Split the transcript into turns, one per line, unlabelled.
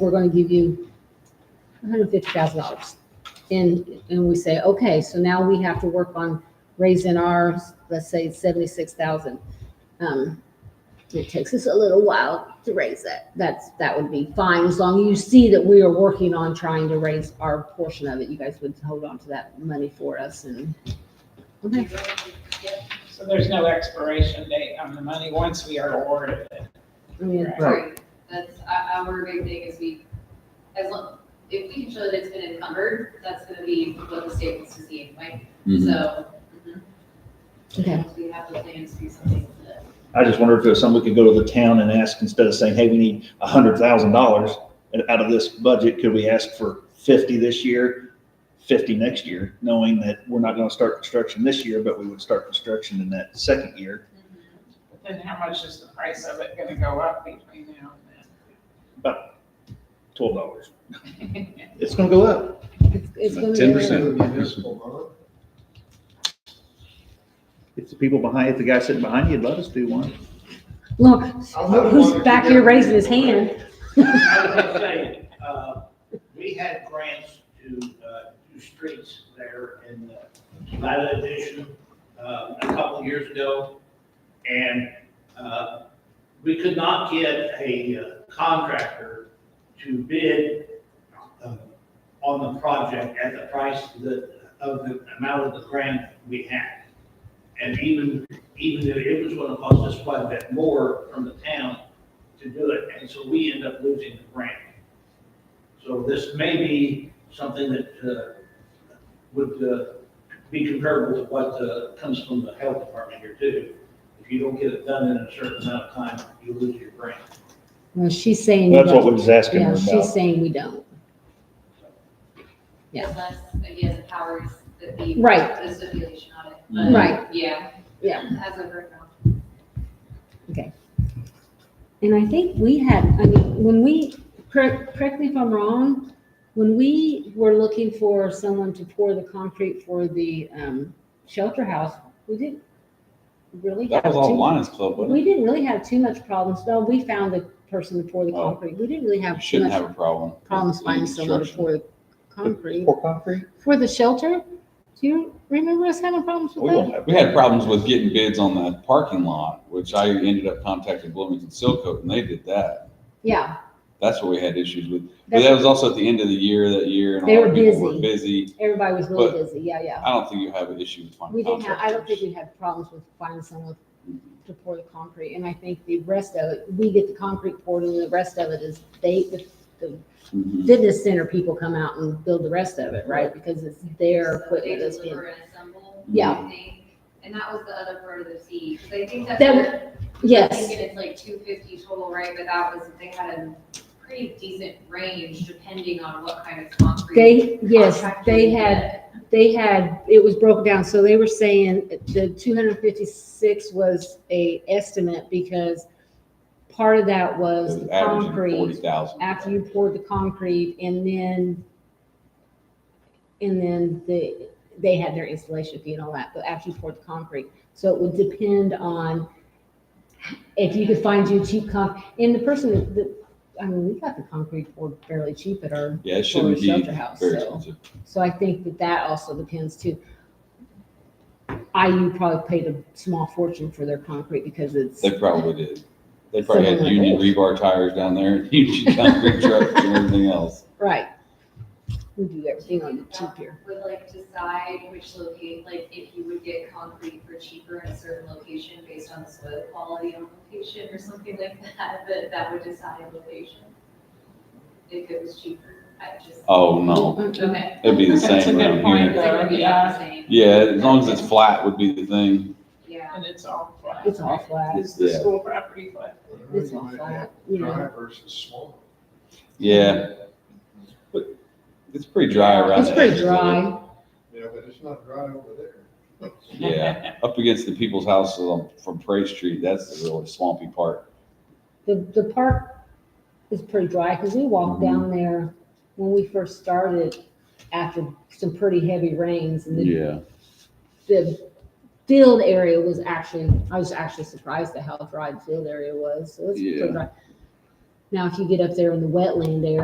we're gonna give you hundred and fifty thousand dollars. And, and we say, okay, so now we have to work on raising ours, let's say seventy-six thousand. Um, it takes us a little while to raise that. That's, that would be fine, as long as you see that we are working on trying to raise our portion of it. You guys would hold on to that money for us and. Okay,
So there's no expiration date on the money once we are awarded it.
I mean,
Right, that's our, our big thing is we, as long, if we can show that it's been encumbered, that's gonna be what the state wants to see anyway,
Mhm.
so. mhm.
Mm-hmm. okay,
We have the plans to do something with it.
I just wonder if there's something we could go to the town and ask, instead of saying, hey, we need a hundred thousand dollars out of this budget, could we ask for fifty this year, fifty next year, knowing that we're not gonna start construction this year, but we would start construction in that second year,
But Then how much is the price of it gonna go up between now
twelve dollars.
and then?
It's gonna go up.
it's, it's gonna be. a little-
10%.
If the people behind, if the guy sitting behind you would let us do one.
Look, who's back here raising his hand?
I was gonna say, uh, we had grants to, uh, do streets there in the Nevada addition, uh, a couple of years ago. And, uh, we could not get a uh, contractor to bid, uh, on the project at the price that, of the amount of the grant we had. And even, even if it was gonna cost us quite a bit more from the town, to do it, and so we end up losing the grant. So this may be something that uh, would uh, be comparable to what uh, comes from the health department here too. If you don't get it done in a certain amount of time, you lose your grant.
Well, she's saying.
That's what we was asking her
Yeah, she's
about.
saying we don't. Yeah.
Unless, again, the powers that be.
Right. Mm-hmm.
The stipulation on it. but
Right.
Yeah.
Yeah.
As of right now.
And I think we had, I mean, when we, correct, correct me if I'm wrong, when we were looking for someone to pour the concrete for the, um, shelter house, we didn't really have
That was all
too.
Lions Club, wasn't
We didn't really have too much problems. No, we found the person to pour the
Oh.
concrete. We didn't really
it? You
have too
shouldn't
much
have a problem. with
problems finding someone to
construction.
pour the concrete.
Pour concrete?
For the shelter, do you remember us having problems
We
with that?
don't have- we had problems with getting bids on that parking lot, which I ended up contacting Bloomington Silcoat and they did that.
Yeah,
That's what we had issues with. But
That's-
that was also at the end of the year, that year, and
They
a lot of
were
people were
busy.
busy.
everybody was really
But-
busy. Yeah, yeah.
I don't think you have an issue with finding
We didn't have, I don't think
contractors.
we had problems with finding someone to pour the concrete, and I think the rest of it, we get the concrete poured, and the rest of it is they, the
Mhm.
fitness center people come out and build the rest of it, right? Because it's their
So they
equipment that's being,
deliver and assemble,
Yeah.
I think. And that was the other part of the fee, 'cause I think that's.
That
what-
yes,
Thinking it's like two fifty total, right, but that was, they had a pretty decent range depending on what kind of concrete.
they, yes,
contractor
they
you
had,
get.
they had, it was broken down, so they were saying the two hundred fifty-six was a estimate because part of that
It
was
was
the
averaging
concrete,
forty thousand.
after you poured the concrete and then, and then the, they had their installation fee and all that, but after you poured the concrete. So it would depend on if you could find you cheap con, and the person that- that, I mean, we got the concrete poured fairly cheap at our,
Yeah, it
for a
shouldn't be
shelter house,
very
so.
expensive.
so I think that that also depends too. IU probably paid a small fortune for their concrete because it's,
They probably did. They probably had
Something like
union
that.
rebar tires down there, and union concrete trucks and everything else.
right. We do everything on the cheap here.
Would like decide which locate, like if you would get concrete for cheaper in a certain location based on the soil quality on location or something like that, but that would decide location. If it was cheaper, I just.
Oh, no.
Okay.
It'd be the
That's a
same
good
around
point,
here.
It's like,
though,
it'd be
yeah.
about the same.
Yeah, as long as it's flat would be the thing.
Yeah.
And it's all flat.
It's all flat.
Is the
Yeah.
school property flat?
It's all flat, uh, you know.
Dry versus swamp.
Yeah, it's pretty dry around.
It's
the
pretty
edges of it.
dry.
Yeah, but it's not dry over there.
Yeah, up against the people's houses on, from Prairie Street, that's the really swampy part.
The, the park is pretty dry because we walked down there when we first started after some pretty heavy rains and the, the field area was actually, I was actually surprised at how dry the field area was. So it's
Yeah.
pretty dry. Now, if you get up there in the wetland area,